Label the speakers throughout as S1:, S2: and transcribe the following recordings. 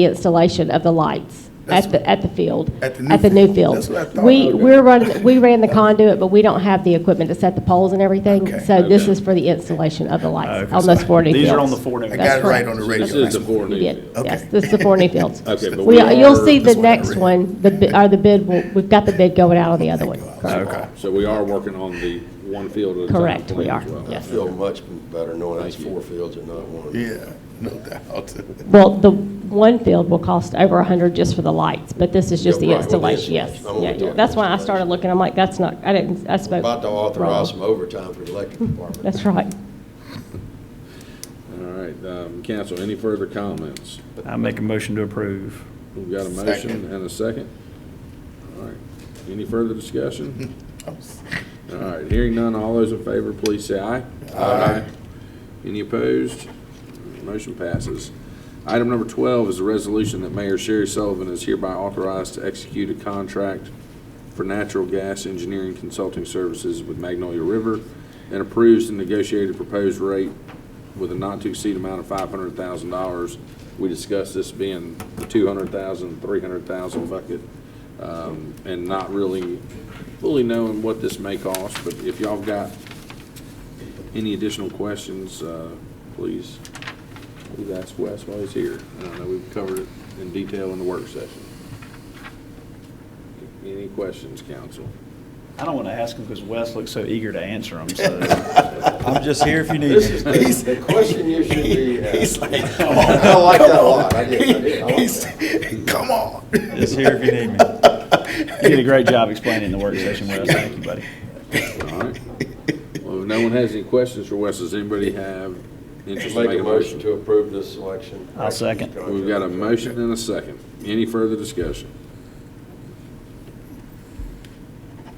S1: the installation of the lights
S2: That's-
S1: at the, at the field.
S2: At the new
S1: new
S2: field.
S1: field.
S2: That's what I thought.
S1: We,
S2: Okay.
S1: we're running, we ran the conduit, but we don't have the equipment to set the poles and everything.
S2: Okay.
S1: So this
S3: Okay.
S1: is for the installation of the lights
S2: Okay.
S1: on those four new fields.
S4: These are on the four new
S2: I
S4: fields.
S2: got it right on the radio.
S3: This is the
S2: That's-
S3: four
S1: You
S3: new
S1: did,
S3: fields.
S1: yes,
S2: Okay.
S1: this is the four new fields.
S3: Okay, but
S1: We,
S3: we
S1: are- you'll
S3: are-
S1: see the
S2: That's what I
S1: next
S2: read.
S1: one, the, bi- or the bid, will- we've got the bid going out on the other one.
S2: Okay.
S3: So we are working on the one field at a time.
S1: Correct, we
S3: plan
S1: are,
S3: as well.
S1: yes.
S5: I feel much better knowing it's four fields and not one.
S2: Yeah, no doubt.
S1: Well, the one field will cost over a hundred just for the lights, but this is just
S5: Yeah,
S1: the
S5: right, with the
S1: installation, yes.
S5: installation. I'm only
S1: Yeah, yeah.
S5: talking
S1: That's why I started
S5: installation.
S1: looking, I'm like, that's not, I didn't, I spoke.
S5: About to authorize
S1: wrong.
S5: some overtime for the electric department.
S1: That's right.
S3: All right, um, council, any further comments?
S4: I make a motion to approve.
S3: We've got a motion
S2: Second.
S3: and a second. All right, any further discussion? All right, hearing none, all those in favor, please say aye. Aye. Any opposed? Motion passes. Item number 12 is a resolution that Mayor Sherry Sullivan is hereby authorized to execute a contract for natural gas engineering consulting services with Magnolia River and approves the negotiated proposed rate with a not-to-exceed amount of $500,000. We discussed this being the 200,000, 300,000 bucket, um, and not really fully knowing what this may cost, but if y'all got any additional questions, uh, please, please ask Wes while he's here. And I know we've covered it in detail in the work session. Any questions, council?
S4: I don't want to ask them because Wes looks so eager to answer them, so I'm just here if you need
S5: This is
S4: me.
S5: the, the question you should be
S2: He's
S5: asking.
S2: like,
S5: I like that a lot. I did, I did. I like
S2: He's-
S5: that.
S2: Come on.
S4: Just here if you need me. You did a great job explaining the work session, Wes. Thank you, buddy.
S3: All right. Well, if no one has any questions for Wes, does anybody have interest in
S5: Make
S3: making
S5: a motion to approve this selection.
S4: I'll second.
S3: We've got a motion and a second. Any further discussion?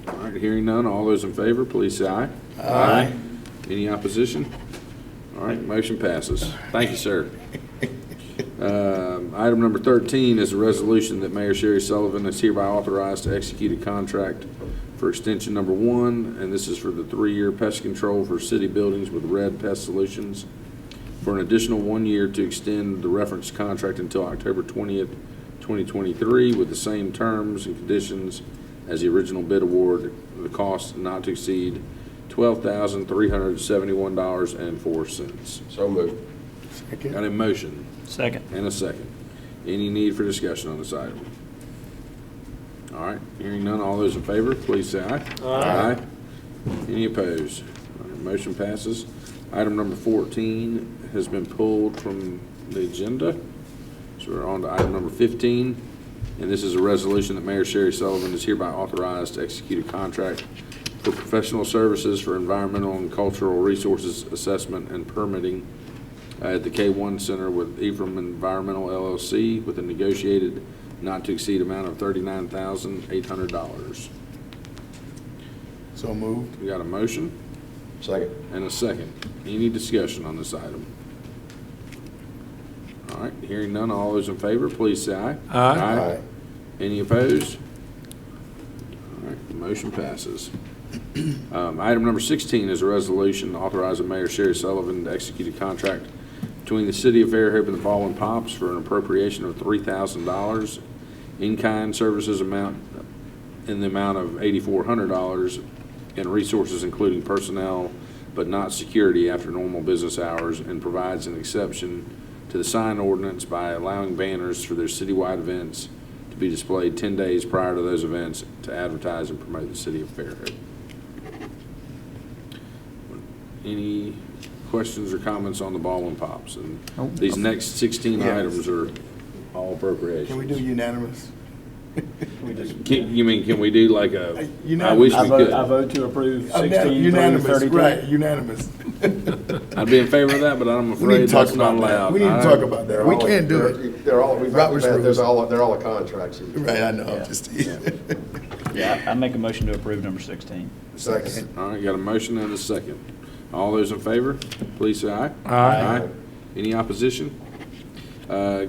S3: All right, hearing none, all those in favor, please say aye. Aye. Any opposition? All right, motion passes. Thank you, sir. Um, Item number 13 is a resolution that Mayor Sherry Sullivan is hereby authorized to execute a contract for extension number one, and this is for the three-year pest control for city buildings with Red Pest Solutions for an additional one year to extend the reference contract until October 20th, 2023, with the same terms and conditions as the original bid award, the cost not to exceed $12,371.04.
S5: So moved.
S3: Got a motion
S4: Second.
S3: and a second. Any need for discussion on this item? All right, hearing none, all those in favor, please say aye. Aye. Any opposed? All right, Motion passes. Item number 14 has been pulled from the agenda, so we're on to item number 15, and this is a resolution that Mayor Sherry Sullivan is hereby authorized to execute a contract for professional services for environmental and cultural resources assessment and permitting uh, at the K1 Center with Ephraim Environmental LLC with a negotiated not-to-exceed amount of $39,800.
S2: So moved.
S3: We got a motion
S5: Second.
S3: and a second. Any discussion on this item? All right, hearing none, all those in favor, please say aye.
S5: Aye.
S3: Any opposed? All right, the motion passes. Um, Item number 16 is a resolution authorizing Mayor Sherry Sullivan to execute a contract between the City of Fairhope and the Baldwin Pops for an appropriation of $3,000 in-kind services amount in the amount of $8,400 and resources including personnel but not security after normal business hours and provides an exception to the sign ordinance by allowing banners for their citywide events to be displayed 10 days prior to those events to advertise and promote the City of Fairhope. Any questions or comments on the ball and pops? And these next 16
S2: Yes.
S3: items are
S2: Can
S3: all
S2: we
S3: appropriations.
S2: do unanimous?
S3: Can- You mean, can we do like a, I
S2: Unanimous.
S3: wish
S4: I
S3: we
S4: vote,
S3: could.
S4: I vote to approve
S2: Uh,
S4: 16 through
S2: Unanimous,
S4: 32.
S2: right, unanimous.
S3: I'd be in favor of that, but I'm
S2: We need to
S3: afraid
S2: talk
S3: that's not
S2: about that.
S3: allowed.
S2: We need to
S3: I-
S2: talk about that. We can't do it.
S5: They're all, we've got,
S2: Robert's
S5: there's
S2: rules.
S5: all, they're all the contracts.
S2: Right, I know, I'm just
S4: Yeah, I I make a motion to approve number 16.
S5: Second.
S3: All right, got a motion and a second. All those in favor, please say aye.
S5: Aye.
S3: Any opposition? Uh,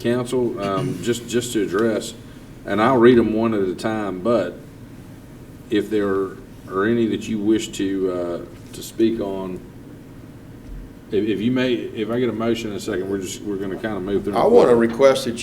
S3: Council, um, just, just to address, and I'll read them one at a time, but if there are any that you wish to, uh, to speak on, If, if you may, if I get a motion in a second, we're just, we're gonna kind of move through.
S5: I want to request that